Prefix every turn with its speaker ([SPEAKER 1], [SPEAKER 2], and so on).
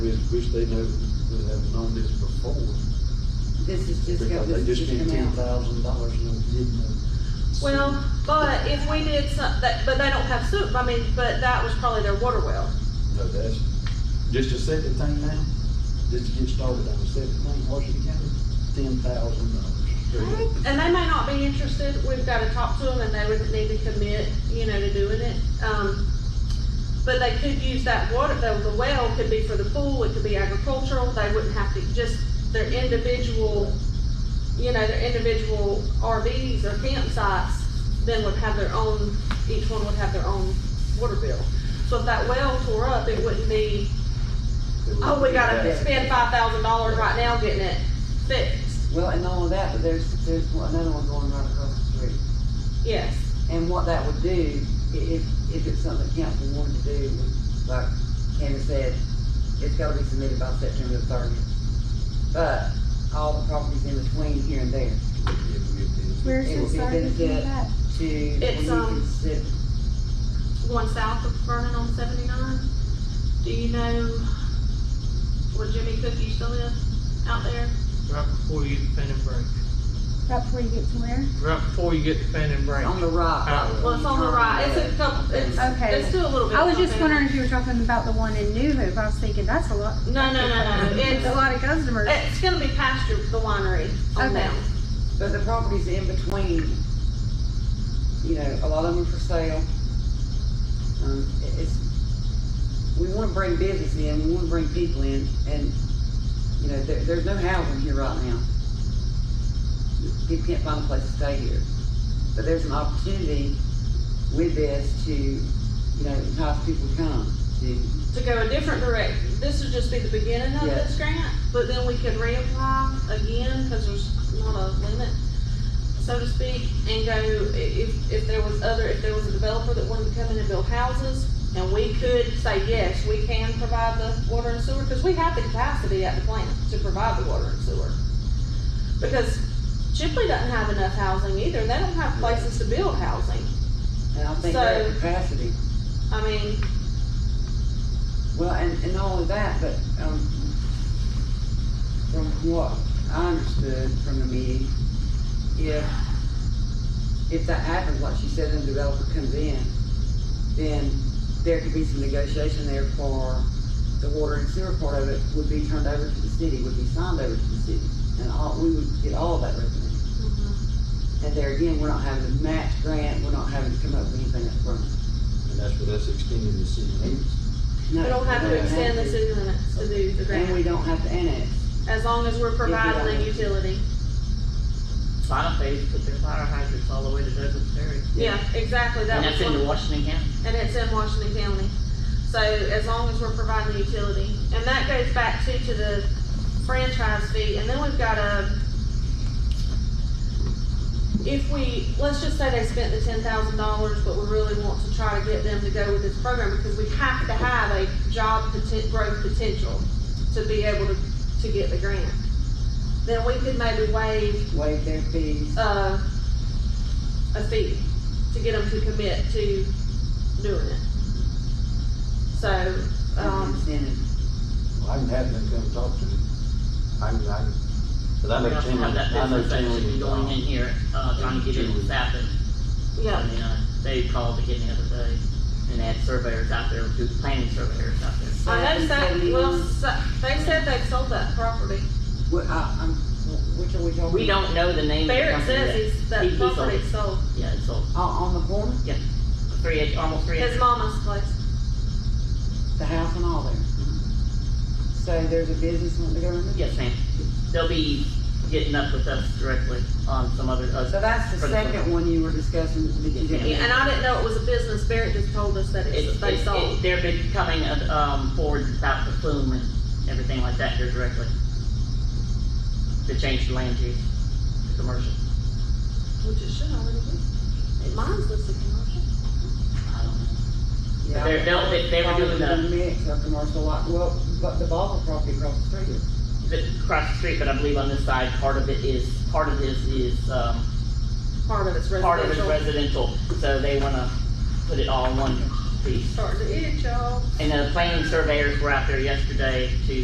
[SPEAKER 1] wish they knew, would have known this before.
[SPEAKER 2] This is just
[SPEAKER 1] Because
[SPEAKER 2] got
[SPEAKER 1] they
[SPEAKER 2] this
[SPEAKER 1] just
[SPEAKER 2] just
[SPEAKER 1] spent
[SPEAKER 2] come
[SPEAKER 1] ten
[SPEAKER 2] out.
[SPEAKER 1] thousand dollars and they didn't know.
[SPEAKER 3] Well, but if we did some, that, but they don't have soup, I mean, but that was probably their water well.
[SPEAKER 1] No, that's, just a second thing now, just to get started on the second thing, Washington County, ten thousand dollars.
[SPEAKER 3] And they may not be interested, we've gotta talk to them and they would need to commit, you know, to doing it. Um, but they could use that water, though, the well could be for the pool, it could be agricultural, they wouldn't have to, just their individual, you know, their individual RVs or campsites, then would have their own, each one would have their own water bill. So if that well tore up, it wouldn't be, oh, we gotta spend five thousand dollars right now getting it fixed,
[SPEAKER 2] Well, and all of that, but there's, there's one- another one going right across the street.
[SPEAKER 3] yes.
[SPEAKER 2] And what that would do, i- if, if it's something council wanted to do, was, like Candace said, it's gotta be submitted by September the thirtieth. But all the properties in between here and there
[SPEAKER 4] Where's
[SPEAKER 2] It
[SPEAKER 4] the
[SPEAKER 2] would be
[SPEAKER 4] service
[SPEAKER 2] benefit.
[SPEAKER 4] in that?
[SPEAKER 2] to, when
[SPEAKER 3] It's,
[SPEAKER 2] you
[SPEAKER 3] um,
[SPEAKER 2] consider,
[SPEAKER 3] going south of Vernon on seventy-nine. Do you know where Jimmy Cook used to live out there?
[SPEAKER 5] Right before you get the pen and break.
[SPEAKER 4] Right before you get to where?
[SPEAKER 5] Right before you get the pen and break.
[SPEAKER 2] on the right.
[SPEAKER 5] Out.
[SPEAKER 2] right
[SPEAKER 3] Well, it's on the right, it's a couple, it's,
[SPEAKER 4] Okay.
[SPEAKER 3] it's still a little bit.
[SPEAKER 4] I was just
[SPEAKER 3] complicated.
[SPEAKER 4] wondering if you were talking about the one in New Hope. I was thinking, that's a lot,
[SPEAKER 3] No, no, no, no,
[SPEAKER 4] a
[SPEAKER 3] it's,
[SPEAKER 4] lot of customers.
[SPEAKER 3] it's gonna be past your, the winery on
[SPEAKER 4] Okay.
[SPEAKER 3] down.
[SPEAKER 2] But the properties in between, you know, a lot of them are for sale. Um, it- it's, we wanna bring business in, we wanna bring people in, and, you know, there, there's no housing here right now. People can't find a place to stay here. But there's an opportunity with this to, you know, entice people to come, to,
[SPEAKER 3] To go a different direct, this would just be the beginning of
[SPEAKER 2] Yeah.
[SPEAKER 3] this grant, but then we could reapply again, cause there's not a limit, so to speak, and go, i- if, if there was other, if there was a developer that wanted to come in and build houses, and we could say, yes, we can provide the water and sewer, cause we have the capacity at the plant to provide the water and sewer. Because Chipley doesn't have enough housing either, they don't have places to build housing,
[SPEAKER 2] and I think they're
[SPEAKER 3] So-
[SPEAKER 2] at capacity.
[SPEAKER 3] I mean,
[SPEAKER 2] Well, and, and not only that, but, um, from what I understood from the meeting, if, if that happens, like she said, and the developer comes in, then there could be some negotiation there for the water and sewer part of it would be turned over to the city, would be signed over to the city, and all, we would get all of that revenue. And there again, we're not having to match grant, we're not having to come up with anything upfront.
[SPEAKER 1] And that's what that's extending the city limits.
[SPEAKER 3] we don't have to extend the
[SPEAKER 2] this,
[SPEAKER 3] city limits to do the grant.
[SPEAKER 2] And we don't have to annex.
[SPEAKER 3] As long as we're providing a utility.
[SPEAKER 6] Final phase, put their fire hydrants all the way to Douglas Ferry.
[SPEAKER 3] Yeah, exactly, that
[SPEAKER 6] And
[SPEAKER 3] was
[SPEAKER 6] that's in
[SPEAKER 3] one,
[SPEAKER 6] Washington County.
[SPEAKER 3] and it's in Washington County. So as long as we're providing the utility, and that goes back too to the franchise fee, and then we've got a, if we, let's just say they spent the ten thousand dollars, but we really want to try to get them to go with this program, because we have to have a job poten- growth potential to be able to, to get the grant. Then we could maybe waive
[SPEAKER 2] waive their fees.
[SPEAKER 3] uh, a fee to get them to commit to doing it. So,
[SPEAKER 6] Uh,
[SPEAKER 2] and
[SPEAKER 3] um,
[SPEAKER 2] incentive.
[SPEAKER 1] Well, I can have them come talk to me. I can, I can, cause I
[SPEAKER 6] We
[SPEAKER 1] know
[SPEAKER 6] also
[SPEAKER 1] Tim,
[SPEAKER 6] have that
[SPEAKER 1] I know
[SPEAKER 6] business
[SPEAKER 1] Tim.
[SPEAKER 6] actually
[SPEAKER 1] is,
[SPEAKER 6] going in
[SPEAKER 1] uh,
[SPEAKER 6] here, uh, trying to get in with Sappin.
[SPEAKER 3] yeah,
[SPEAKER 6] And, uh, they called again the other day and they had surveyors out there, do planning surveyors out there.
[SPEAKER 3] I know that,
[SPEAKER 2] Seventy
[SPEAKER 3] well,
[SPEAKER 2] one.
[SPEAKER 3] so- they said they sold that property.
[SPEAKER 2] What, uh, I, I'm, which are we talking?
[SPEAKER 6] We don't know the name of the
[SPEAKER 3] Barrett
[SPEAKER 6] company
[SPEAKER 3] says
[SPEAKER 6] yet.
[SPEAKER 3] he's,
[SPEAKER 6] He-
[SPEAKER 3] that
[SPEAKER 6] he
[SPEAKER 3] property sold,
[SPEAKER 6] Yeah, it's sold.
[SPEAKER 2] Uh, On, on the corner,
[SPEAKER 6] Three, ac- almost three.
[SPEAKER 3] his
[SPEAKER 6] acres.
[SPEAKER 3] mama's place.
[SPEAKER 2] the house and all there.
[SPEAKER 6] Mm-hmm.
[SPEAKER 2] So there's a business wanting to go in there?
[SPEAKER 6] Yes, ma'am. They'll be getting up with us directly on some other, uh,
[SPEAKER 2] So that's the
[SPEAKER 6] For the
[SPEAKER 2] second
[SPEAKER 6] corner.
[SPEAKER 2] one you were discussing that you
[SPEAKER 3] Yeah,
[SPEAKER 6] Yeah.
[SPEAKER 2] didn't.
[SPEAKER 3] And I didn't know it was a business, Barrett just told us that
[SPEAKER 6] It's,
[SPEAKER 3] it's, they
[SPEAKER 6] it's, it-
[SPEAKER 3] sold.
[SPEAKER 6] they're becoming, uh, um, forward about the plume and everything like that here directly. To change the land use to commercial.
[SPEAKER 3] Which it should already be. Mine's listed commercial.
[SPEAKER 6] I don't know.
[SPEAKER 2] Yeah.
[SPEAKER 6] They're, they'll, they, they were
[SPEAKER 2] Probably
[SPEAKER 6] doing
[SPEAKER 2] in the
[SPEAKER 6] the,
[SPEAKER 2] Mix of commercial lot, well, but the Bobble property across the street is.
[SPEAKER 6] the, across the street, but I believe on this side, part of it is, part of this is, um,
[SPEAKER 3] Part of it's
[SPEAKER 6] part of it's
[SPEAKER 3] residential.
[SPEAKER 6] residential, so they wanna put it all in one piece.
[SPEAKER 3] Starting to itch, y'all.
[SPEAKER 6] And the planning surveyors were out there yesterday to